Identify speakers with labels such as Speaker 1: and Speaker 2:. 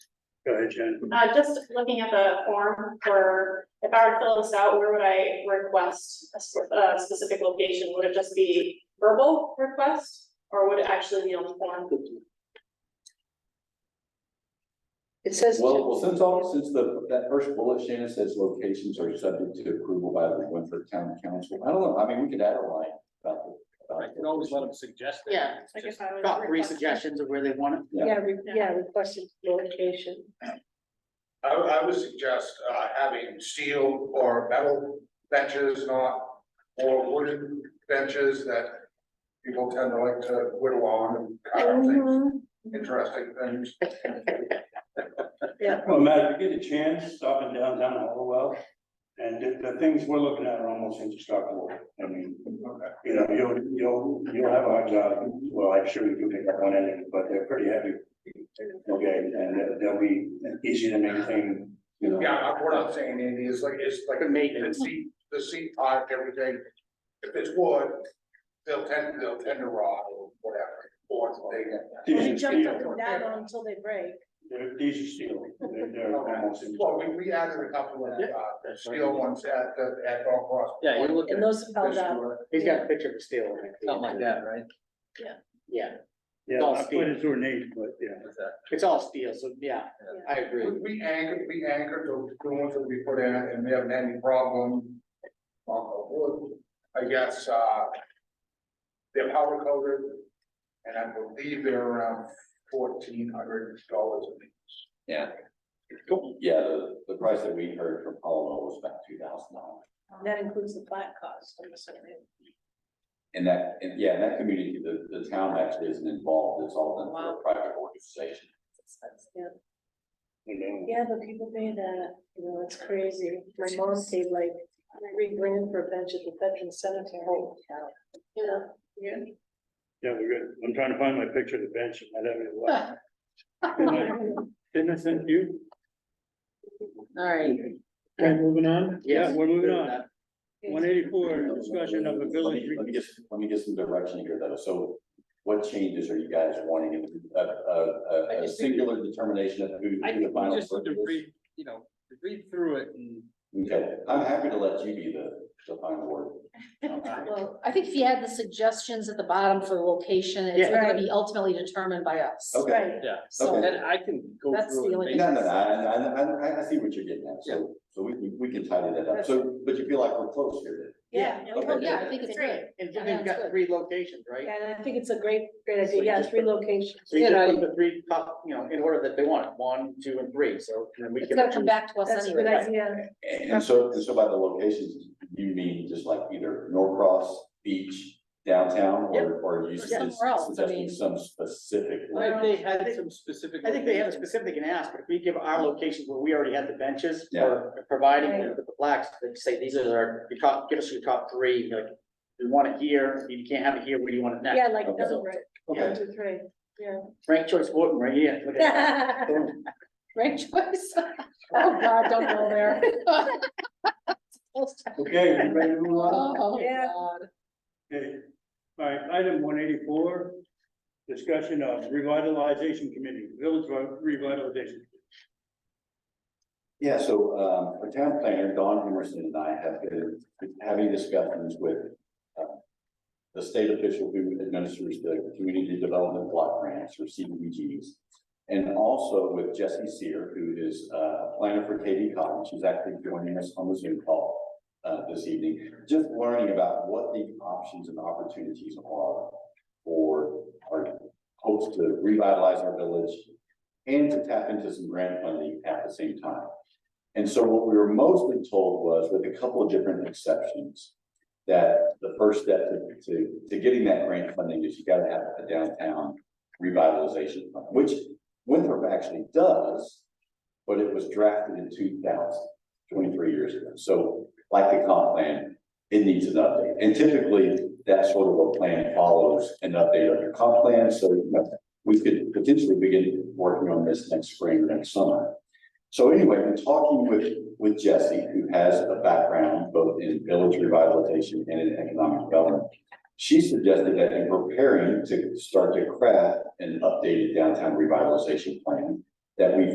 Speaker 1: Go ahead, Jen.
Speaker 2: Uh, just looking at the form for, if I were to fill this out, where would I request a sp- a specific location? Would it just be verbal request? Or would it actually be on the form?
Speaker 3: It says.
Speaker 4: Well, well, since all, since the, that first bullet, Shannon says locations are subject to approval by the Winford Town Council. I don't know, I mean, we could add a line about the.
Speaker 5: I can always let them suggest. it.
Speaker 3: Yeah.
Speaker 2: I guess I would
Speaker 5: Got three
Speaker 2: request-
Speaker 5: suggestions of where they want it.
Speaker 3: Yeah, re- yeah, requested location.
Speaker 6: I, I would suggest, uh, having steel or metal benches, not, or wooden benches that people tend to like to whittle on and carve things, interesting things.
Speaker 1: Well, Matt, if you get a chance, stop in downtown Hallowell. And the, the things we're looking at are almost indestructible. I mean, you know, you'll, you'll, you'll have a hard job. Well, I'm sure you can pick up on anything, but they're pretty heavy. Okay, and they'll- they'll be easy to maintain, you know.
Speaker 6: Yeah, I- we're not saying any, it's like, it's like
Speaker 5: The
Speaker 6: the
Speaker 5: maintenance.
Speaker 6: seat, the seat part, everything. If it's wood, they'll tend, they'll tend to rot or whatever, or they get.
Speaker 1: These are
Speaker 3: Jump
Speaker 1: steel.
Speaker 3: up and down until they break.
Speaker 1: They're, these are steel. They're, they're almost.
Speaker 6: Well, we, we added a couple of, uh, steel ones at, the- at Golf Cross.
Speaker 5: Yeah, you're looking.
Speaker 3: And those fell down.
Speaker 7: He's got a picture of a steel. in it.
Speaker 5: Something like that, right?
Speaker 7: Yeah,
Speaker 1: Yeah,
Speaker 7: all
Speaker 1: I put
Speaker 7: steel.
Speaker 1: it's ornate, but yeah.
Speaker 7: it's all steel, so yeah, I agree.
Speaker 6: We, we anchored, we anchored the the ones that we put in and we haven't had any problem. on the wood. I guess, uh. They're powder coated. And I believe they're around fourteen hundred dollars a piece.
Speaker 4: Yeah, the, the price that we heard from Paul was about two thousand dollars.
Speaker 3: That includes the flat cost, I'm assuming.
Speaker 4: And that, and yeah, in that community, the, the town actually isn't involved, it's all done through a private organization.
Speaker 3: Yeah.
Speaker 1: you know.
Speaker 3: Yeah, but people pay that, you know, it's crazy. My mom paid like three grand for a bench at the veteran cemetery.
Speaker 2: Oh,
Speaker 3: You know?
Speaker 1: Yeah, we're good. I'm trying to find my picture of the bench. I don't know what. Didn't I- Didn't I send you?
Speaker 7: All right.
Speaker 1: Okay, moving on?
Speaker 7: Yes.
Speaker 1: Yeah, We're moving on. One eighty-four, discussion of a village.
Speaker 4: Let me- Let me get, let me get some direction here though, so what changes are you guys wanting, a, a,
Speaker 5: I
Speaker 4: a
Speaker 5: just think-
Speaker 4: singular determination of who,
Speaker 5: I
Speaker 4: who the
Speaker 5: think we
Speaker 4: final.
Speaker 5: just need
Speaker 4: person
Speaker 5: to
Speaker 4: is?
Speaker 5: read, you know, read through it and
Speaker 4: Okay, I'm happy to let you be the, the final word.
Speaker 8: Well, I think if you had the suggestions at the bottom for the location,
Speaker 7: Yeah.
Speaker 8: it's gonna be ultimately determined by us.
Speaker 4: Okay.
Speaker 3: Right.
Speaker 8: So,
Speaker 4: Okay.
Speaker 5: then I can go
Speaker 8: That's the
Speaker 5: through
Speaker 8: only
Speaker 5: it.
Speaker 8: thing.
Speaker 4: No, no, no, I, I, I, I see what you're getting at, so, so we, we, we can tidy that up, so, but you feel like we're close here
Speaker 3: Yeah.
Speaker 4: Okay.
Speaker 3: Oh,
Speaker 8: Yeah, I think it's great.
Speaker 7: And then you've got three locations, right?
Speaker 3: And I think it's a great, great idea. Yeah, three locations.
Speaker 7: So you just put the three top, you know, in order that they want it, one, two, and three, so then we
Speaker 8: It's
Speaker 7: can.
Speaker 8: gotta come back to us
Speaker 3: That's a good
Speaker 8: anyway.
Speaker 3: idea.
Speaker 4: then. And so, and so by the locations, you mean just like either Norcross, Beach, downtown, or, or you
Speaker 8: Or somewhere else, I
Speaker 4: suggesting
Speaker 8: mean.
Speaker 4: some specific?
Speaker 5: Like they had some specific.
Speaker 7: I think they have a
Speaker 5: locations.
Speaker 7: specific and ask, but if we give our locations where we already had the benches
Speaker 4: Yeah.
Speaker 7: or providing with the blacks, they say, these are our, your top, give us your top three, like. We want it here, if you can't have it here, where do you want it next?
Speaker 3: Yeah, like
Speaker 4: Okay.
Speaker 3: number, one,
Speaker 4: Okay,
Speaker 3: two, three, yeah.
Speaker 7: Frank Choice Wharton right here. look at that. Boom.
Speaker 8: Great choice. Oh, God, don't go there.
Speaker 1: Okay, we ready to move on?
Speaker 8: Oh,
Speaker 3: Yeah.
Speaker 8: God.
Speaker 1: Okay, all right, item one eighty-four, discussion of revitalization committee, village revitalization.
Speaker 4: yeah, so, um, our town planner, Don Emerson and I have been having discussions with, uh, the state official who administers the community development block grants or CDBGs. And also with Jesse Seer, who is uh, a planner for Katie Cotton, she's actually joining us on the Zoom call uh, this evening, just learning about what the options and opportunities are for our hopes to revitalize our village and to tap into some grant funding at the same time. And so what we were mostly told was, with a couple of different exceptions, that the first step to- to, to getting that grant funding is you gotta have a downtown revitalization fund, which Winthrop actually does, but it was drafted in 2000, 23 years ago. So like the comp plan, it needs an update. And typically, that sort of a plan follows an update of your comp plan, so you know, we could potentially begin working on this next spring, next summer. So anyway, in talking with, with Jesse, who has a background both in village revitalization and in economic development, she suggested that in preparing to start to craft an updated downtown revitalization plan, that we